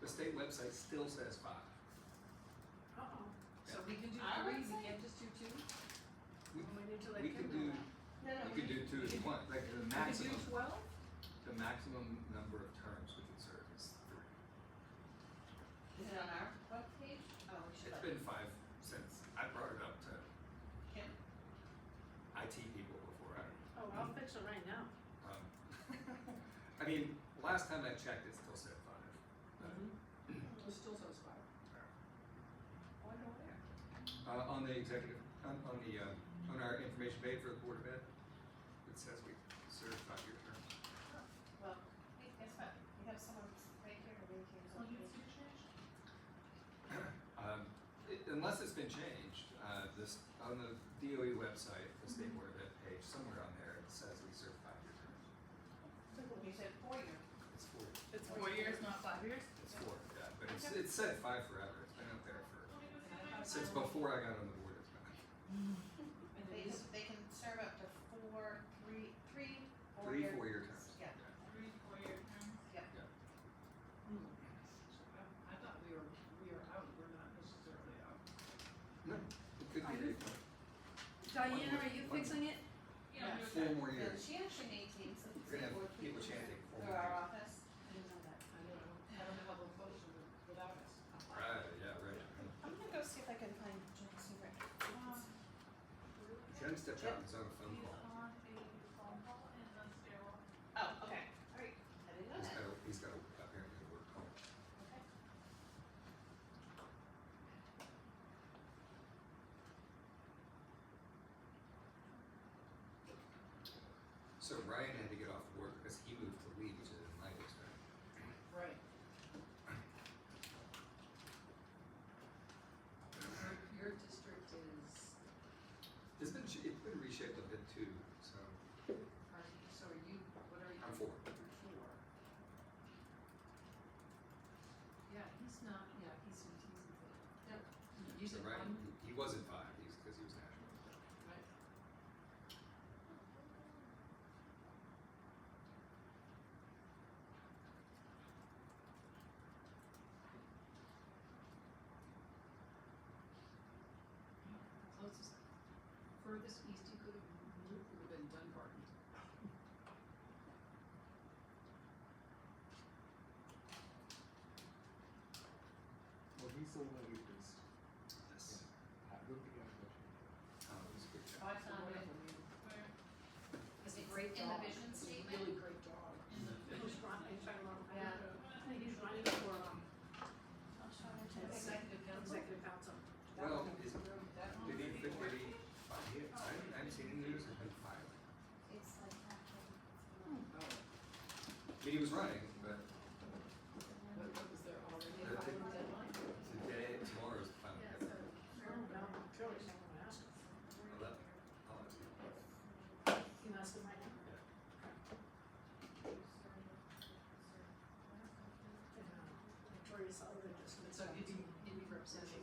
The state website still says five. Uh-oh. So we can do I three, would we say- can't just do two? We- We need to let We could Kim do, know No, no, you we, could do two we as could- one, like the that. We could maximum, do twelve? the maximum number of terms we can serve is three. is it on our web page? Oh, we should It's let been five since, I brought it up to Kim. IT people before, I Oh, don't I'll fix it right now. Um, I mean, last time I checked, it still said five. but, Mm-hmm. It still says five. Oh, I wonder where. Uh, on the executive, on, on the, um, on our information page for the Board of Ed, it says we serve five-year terms. Well, hey, guess what? We have someone right here, right here. so we- Um, it, unless it's been changed, uh, this, on the DOE website, the State Board of Ed page, somewhere on there, it says we serve five-year terms. You said four year. It's four, It's four years, not five years? it's four, yeah, but it's, it's said five forever, it's been up there for, since before I got on the board, it's been. And They, it is they can serve up to four, three, three, four Three, year. four-year terms. Yeah. Three, four year terms? Yeah. Yeah. Hmm. So I, I thought we were, we were out, we're not necessarily out. No, it could Are be you- anyone. Diana, are you One- fixing it? Yeah, we Yeah. Four were- more And years. she actually maintains the We're gonna have board people meetings chanting four Through more our years. office. I didn't know that. I don't know, I don't know how they'll close it without us. Right, yeah, right. I'm gonna go see if I can find Jen's number. Jen stepped out and was on a phone call. Oh, okay, alright. I didn't know He's that. got a, he's got a, apparently a work call. Okay. So Ryan had to get off work because he moved to Lee, which is in my district. Right. your- Your district is, It's been, sh- it's been reshaped a bit too, so are, you- so are you, what are you? I'm for You're four. Yeah, he's not, yeah, he's, he's, yeah, you So said Ryan, one, he- he wasn't five, he's, because he was national. right? Closest, furthest east he could have moved would have been Dunbarton. Well, he's the one who was, Yes. I don't think I've met him. Um, it was a good job. Oh, I It's a found it. wonderful man. Where, It's a It's great in the dog. vision It's a statement. Really great dog. in the Who's vision? running, sorry, Laura. Yeah. I think he's running for, um, Executive council. executive council. Well, is, did That one. he, did he, five years? I haven't, I haven't seen any news, it's been five. It's like half Oh, I mean, he was running, but what, what was there already Yeah. a final deadline? today, tomorrow's the final. Yeah, day. so. Oh, no, Charlie's not gonna ask him. Eleven. I'll ask you. He must have might not. you know, Victoria Sullivan just. So you'd be, you'd be representing.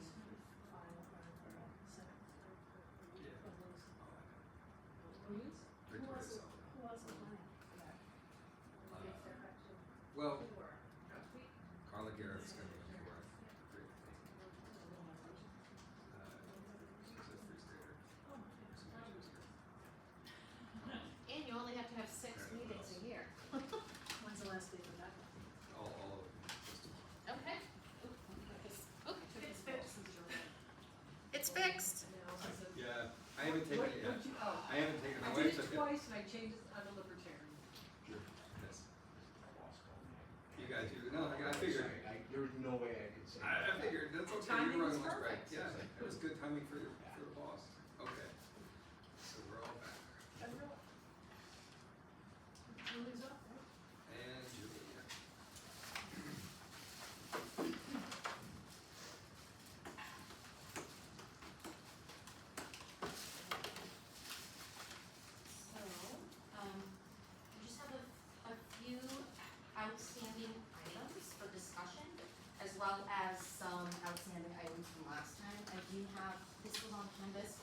Yeah. Who I'll ask you. Victoria Who's? was it? Sullivan. else is running? Well, Four. Oh, Carla Garrett's gonna be for it. Great. Uh, she's a free stater. So she's here. And you only have to have six meetings a year. When's the last day of that? one? Oh, All, all of them, just tomorrow. Okay. It's fixed. Now, It's is fixed. it? Yeah, I haven't taken it yet. What- what you- oh. I haven't taken it. My I did wife took it it. twice and I changed it, I'm a libertarian. Yes. You guys do, no, I, I figured. Sorry, I- there was no way I could say. I, I that. figured, that's The okay, timing you're was on lunch break, perfect. yeah, it was good timing for your, for your boss, okay. So we're all back, Julie's up, right? and Julie, yeah. So, um, we just have a, a few outstanding items for discussion, as well as some outstanding items from last time. I do have, this was on Canvas, Um,